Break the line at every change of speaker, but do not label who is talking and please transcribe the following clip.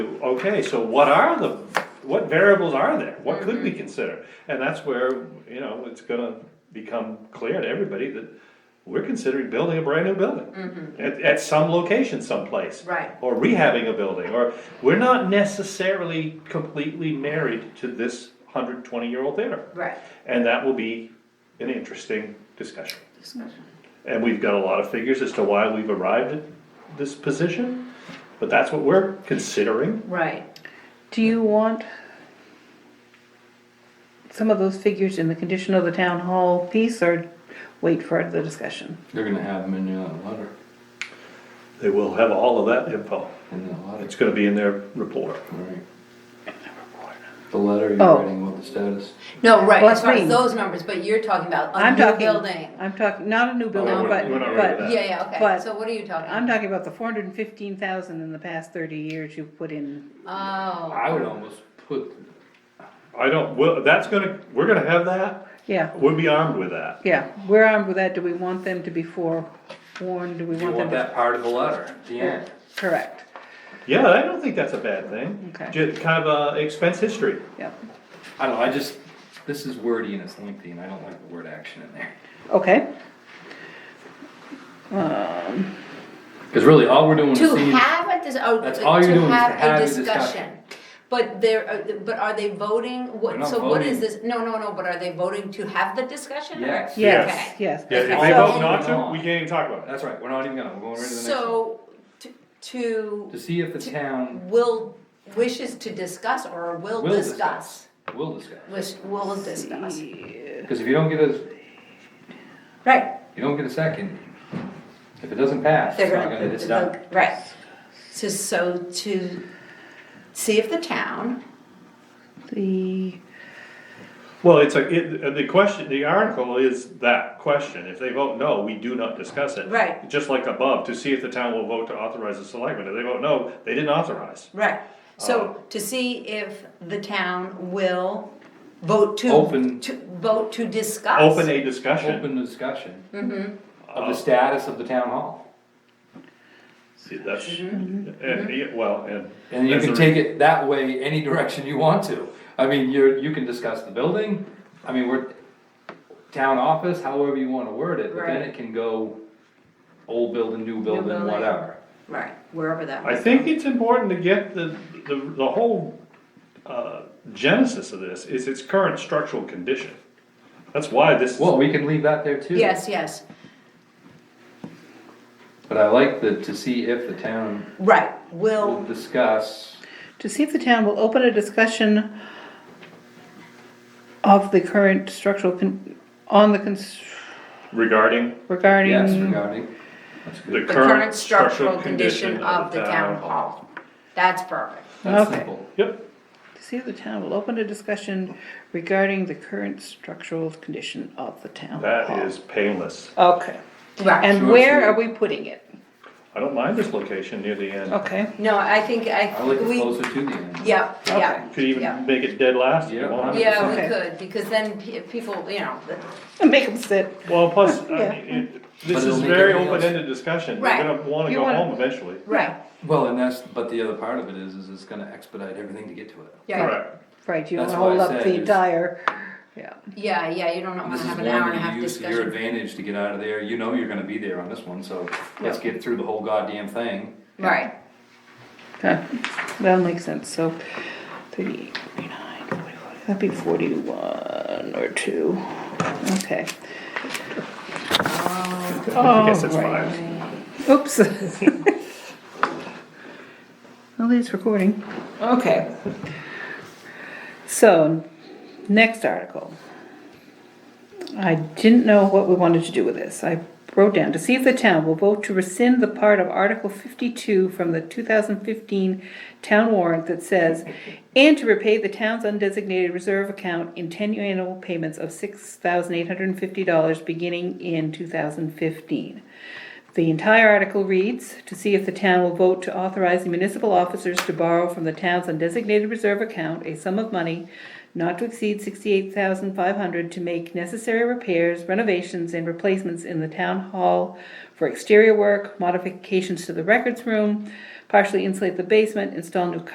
okay, so what are the, what variables are there? What could we consider? And that's where, you know, it's gonna become clear to everybody that we're considering building a brand new building. At, at some location someplace.
Right.
Or rehabbing a building, or, we're not necessarily completely married to this hundred twenty-year-old theater.
Right.
And that will be an interesting discussion. And we've got a lot of figures as to why we've arrived at this position, but that's what we're considering.
Right.
Do you want some of those figures in the condition of the town hall piece or wait for the discussion?
They're gonna have them in that letter,
They will have all of that info.
in that letter,
It's gonna be in their report.
right? The letter you're
Oh.
writing, what the status?
No, right,
Well,
as
that's
far as
me.
those numbers, but you're talking about a
I'm
new
talking,
building.
I'm talking, not a new building,
we're-
but,
we're not ready for
but,
that.
Yeah, yeah, okay,
But-
so what are you talking?
I'm talking about the four hundred and fifteen thousand in the past thirty years you've put in.
Oh,
I would almost put,
I don't, well, that's gonna, we're gonna have that,
Yeah,
we'll be armed with that.
yeah, we're armed with that, do we want them to be forewarned, do we
you
want them
want
to?
that part of the letter, at the end.
Correct,
Yeah, I don't think that's a bad thing.
Okay.
Ju- Kind of a expense history.
yeah,
I don't know, I just, this is wordy and it's lengthy and I don't like the word action in there.
okay,
Cause really, all we're doing is
to
seeing,
have a, dis- oh,
That's all you're
to
doing is to
have
have
a
a
discussion.
discussion.
But there, uh, but are they voting,
They're
what,
not
so what is
voting.
this, no, no, no, but are they voting to have the discussion? or-
Yes.
yes, yes.
Yeah, if
Okay.
they vote
So-
not to, we can't even talk about it.
that's right, we're not even gonna, we're going right to the next one.
So, to- to,
To see if the town
will, wishes to discuss or will
will
discuss?
discuss, will discuss.
Wish, will discuss,
Cause if you don't get a,
right,
you don't get a second, if it doesn't pass,
they're
it's not
gonna,
gonna, it's done.
the- right. So, so to see if the town,
The,
Well, it's a, it, the question, the article is that question, if they vote no, we do not discuss it.
Right.
Just like above, to see if the town will vote to authorize the selectmen, if they vote no, they didn't authorize.
right, so to see if the town will vote to.
Open-
To, vote to discuss.
Open a discussion,
Open the discussion of the status of the town hall.
See, that's, and, yeah, well, and.
And you
that's
can
a-
take it that way, any direction you want to. I mean, you're, you can discuss the building, I mean, we're, town office, however you wanna word it, but then
Right.
it can go old building, new building,
building.
whatever.
Right, wherever that
I
was.
think it's important to get the, the, the whole, uh, genesis of this is its current structural condition. That's why this,
Well, we can leave that there too.
Yes, yes,
But I like the, to see if the town
right,
will
will,
discuss,
to see if the town will open a discussion of the current structural, con- on the, cons-
regarding
regarding.
yes, regarding, that's
the
good,
the current
current
structural condition of the town hall. That's perfect.
that's
Okay.
simple.
Yep,
To see if the town will open a discussion regarding the current structural condition of the town. hall.
that is painless.
Okay,
Right,
and
Sure,
where
sure.
are we putting it?
I don't mind this location near the end.
Okay,
no, I think,
I
I,
like it
we,
closer to the end.
yeah, yeah.
Could
Yeah.
even make it dead last if you
Yeah.
want.
Yeah, we
Okay.
could, because then pe- people, you know, the-
make them sit.
Well, plus, I
Yeah.
mean, it-
But
this
it'll
is
make
very
everything else-
open-ended discussion,
Right.
you're gonna wanna
You
go
wanna-
home eventually.
right,
Well, and that's, but the other part of it is, is it's gonna expedite everything to get to it.
yeah,
Correct.
Right, you don't
That's
wanna
why I
hold up
said
the
it's-
entire, yeah,
yeah, yeah, you don't wanna
This is
have
one
an hour and a
that
half
you use to your
discussion.
advantage to get out of there, you know you're gonna be there on this one, so let's
Yeah.
get through the whole goddamn thing.
Right,
okay, that makes sense, so thirty-eight, thirty-nine, forty-one, that'd be forty-one or two, okay.
I guess it's
Alright.
fine.
Oops. Well, it's recording. Okay. So, next article. I didn't know what we wanted to do with this. I wrote down, to see if the town will vote to rescind the part of Article fifty-two from the two thousand fifteen town warrant that says, and to repay the town's undesignated reserve account in ten annual payments of six thousand eight hundred and fifty dollars beginning in two thousand fifteen. The entire article reads, to see if the town will vote to authorize the municipal officers to borrow from the town's undesignated reserve account a sum of money not to exceed sixty-eight thousand five hundred to make necessary repairs, renovations, and replacements in the town hall for exterior work, modifications to the records room, partially insulate the basement, install new